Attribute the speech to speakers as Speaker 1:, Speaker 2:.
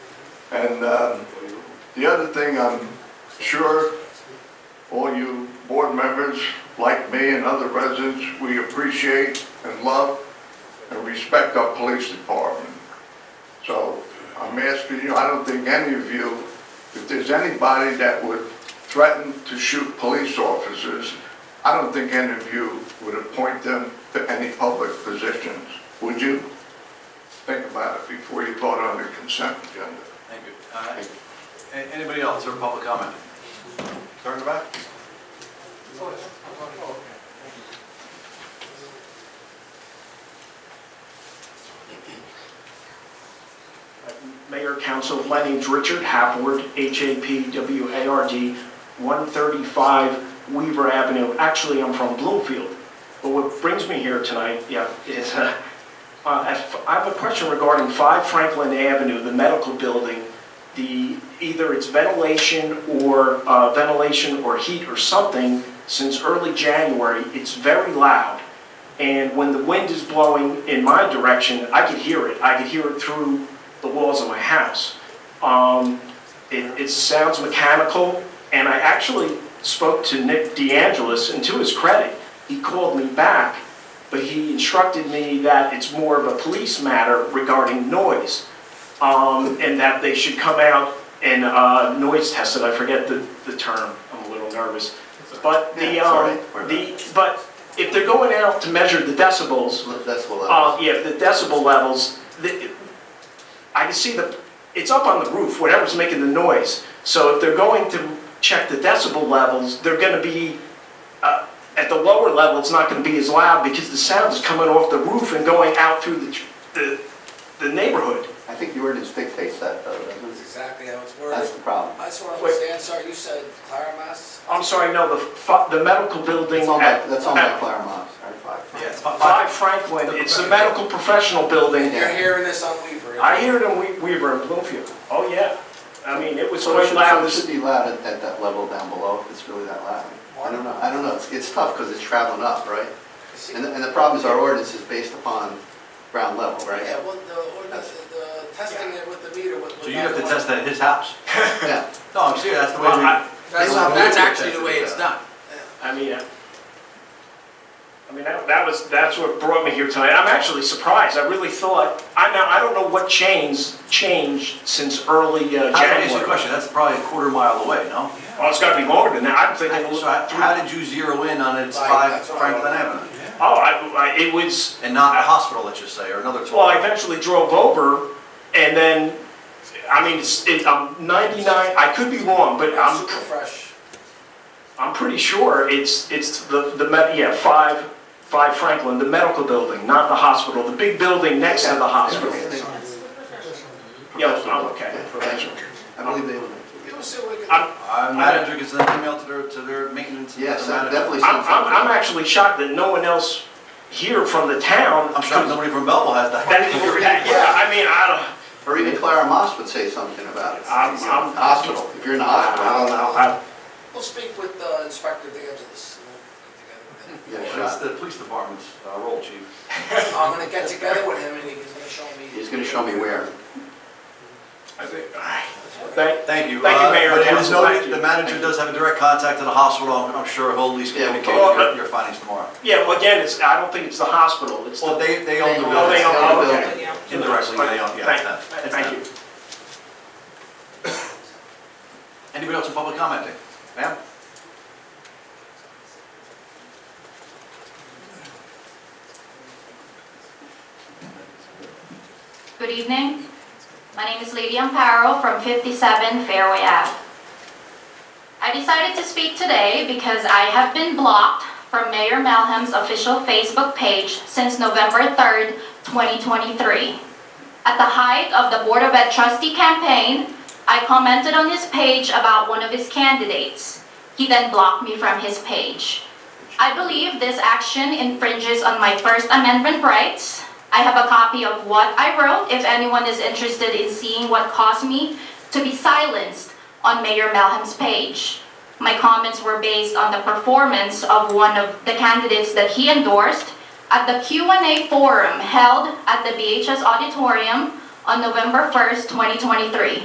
Speaker 1: And um, the other thing, I'm sure all you board members, like me and other residents, we appreciate and love and respect our police department. So I'm asking you, I don't think any of you, if there's anybody that would threaten to shoot police officers, I don't think any of you would appoint them to any public positions, would you? Think about it before you vote on the consent agenda.
Speaker 2: Thank you. All right. A- Anybody else or public comment? Turn it back.
Speaker 3: Mayor, Council, my name's Richard Hapward, H-A-P-W-A-R-D, 135 Weaver Avenue. Actually, I'm from Bloomfield, but what brings me here tonight, yeah, is, uh, uh, if- I have a question regarding 5 Franklin Avenue, the medical building, the, either it's ventilation or uh, ventilation or heat or something, since early January, it's very loud. And when the wind is blowing in my direction, I could hear it. I could hear it through the walls of my house. Um, it, it sounds mechanical, and I actually spoke to Nick DeAngelis, and to his credit, he called me back, but he instructed me that it's more of a police matter regarding noise, um, and that they should come out and uh, noise test it. I forget the, the term. I'm a little nervous. But the,
Speaker 4: Yeah, it's all
Speaker 3: um,
Speaker 4: right. We're
Speaker 3: the, but if they're going out to measure the decibels,
Speaker 4: That's what I,
Speaker 3: uh, yeah, the decibel levels, the, I can see the, it's up on the roof, whatever's making the noise. So if they're going to check the decibel levels, they're gonna be, uh, at the lower level, it's not gonna be as loud because the sound is coming off the roof and going out through the, the, the neighborhood.
Speaker 4: I think the ordinance dictates that, though. doesn't it?
Speaker 5: That's exactly how it's
Speaker 4: That's
Speaker 5: worded.
Speaker 4: the problem.
Speaker 5: I just want to understand, sir, you said Claramas?
Speaker 3: I'm sorry, no, the, fu- the medical building
Speaker 4: That's on
Speaker 3: at.
Speaker 4: that, that's on that
Speaker 3: at
Speaker 4: Claremont, sorry, five.
Speaker 2: Yes. fi-
Speaker 3: Five
Speaker 2: fi-
Speaker 3: Franklin, it's the medical professional building.
Speaker 5: You're hearing this on Weaver.
Speaker 3: I hear it in We- Weaver and Bloomfield. Oh, yeah. I mean, it was
Speaker 4: So it
Speaker 3: quite
Speaker 4: should,
Speaker 3: loud.
Speaker 4: so it should be loud at, at that level down below, if it's really that loud. I don't know, I don't know, it's, it's tough, because it's traveling up, right?
Speaker 5: See-
Speaker 4: And, the- and the problem is our ordinance is based upon ground level,
Speaker 5: Yeah,
Speaker 4: right?
Speaker 5: well, the ordinance, the testing it with the meter would.
Speaker 2: So you have to test that at his house?
Speaker 4: Yeah.
Speaker 2: No, I'm serious, that's the way
Speaker 3: Well, I-
Speaker 2: we,
Speaker 6: That's,
Speaker 4: They-
Speaker 6: that's actually the way it's done.
Speaker 3: I mean, I I mean, that that was, that's what brought me here tonight. I'm actually surprised. I really thought, I now, I don't know what changed, changed since early uh,
Speaker 2: how did you answer the
Speaker 3: January.
Speaker 2: question? That's probably a quarter mile away, no?
Speaker 3: Well, it's gotta be longer than that. I'm thinking,
Speaker 2: So how- how did you zero in on it's
Speaker 5: Right,
Speaker 2: five
Speaker 5: that's what I
Speaker 2: Franklin
Speaker 5: wanted.
Speaker 2: Avenue?
Speaker 3: oh, I, I- it was,
Speaker 2: And not a hospital, let's just say, or another tool?
Speaker 3: well, I eventually drove over and then, I mean, it's, it, I'm 99, I could be wrong, but I'm,
Speaker 5: Super fresh.
Speaker 3: I'm pretty sure it's, it's the, the, med- yeah, five, five Franklin, the medical building, not the hospital, the big building next to the hospital. Yeah, I'm okay.
Speaker 4: Professional. I believe they would make it.
Speaker 5: Give us a look
Speaker 3: I'm-
Speaker 5: at.
Speaker 2: Our manager gets an email to their, to their maintenance.
Speaker 4: Yes,
Speaker 2: manager.
Speaker 4: that definitely
Speaker 3: I'm,
Speaker 4: sounds like.
Speaker 3: I'm, I'm actually shocked that no one else here from the town.
Speaker 2: I'm sure nobody from Belleville has
Speaker 3: That,
Speaker 2: that.
Speaker 3: that- yeah, I mean, I
Speaker 4: Or even Clara Moss would say something about it.
Speaker 3: I'm- I'm-
Speaker 4: Hospital, if you're in the hospital.
Speaker 3: don't, I don't know. I-
Speaker 5: We'll speak with uh, Inspector DeAngelis. and we'll get
Speaker 4: Yeah,
Speaker 2: That's
Speaker 4: sure.
Speaker 2: the police department's uh, role, chief.
Speaker 5: together with him. I'm gonna get together with him and he's gonna show me.
Speaker 4: He's gonna show me where.
Speaker 3: I think- uh, all right. Thank-
Speaker 2: Thank you.
Speaker 3: Thank you,
Speaker 2: Uh,
Speaker 3: Mayor
Speaker 2: But it
Speaker 3: and
Speaker 2: was
Speaker 3: council. Thank
Speaker 2: noted, the
Speaker 3: you.
Speaker 2: manager does have a direct contact to the hospital. I'm I'm sure he'll at least
Speaker 4: Yeah, we'll
Speaker 2: communicate
Speaker 3: call
Speaker 2: your
Speaker 3: him.
Speaker 2: your findings tomorrow.
Speaker 3: Yeah, well, again, it's, I don't think it's the hospital, it's
Speaker 2: Well,
Speaker 3: the.
Speaker 2: they, they own the
Speaker 3: Oh, they
Speaker 2: building.
Speaker 3: own- oh, okay.
Speaker 2: Indirectly, they own, yeah. it's them.
Speaker 3: Thank
Speaker 2: It's
Speaker 3: thank
Speaker 2: them.
Speaker 3: you.
Speaker 2: Anybody else in public commenting? Ma'am?
Speaker 7: Good evening. My name is Lady Amparo from 57 Fairway Ave. I decided to speak today because I have been blocked from Mayor Melham's official Facebook page since November 3rd, 2023. At the height of the Board of Ed trustee campaign, I commented on his page about one of his candidates. He then blocked me from his page. I believe this action infringes on my First Amendment rights. I have a copy of what I wrote if anyone is interested in seeing what caused me to be silenced on Mayor Melham's page. My comments were based on the performance of one of the candidates that he endorsed at the Q&A forum held at the BHS auditorium on November 1st, 2023.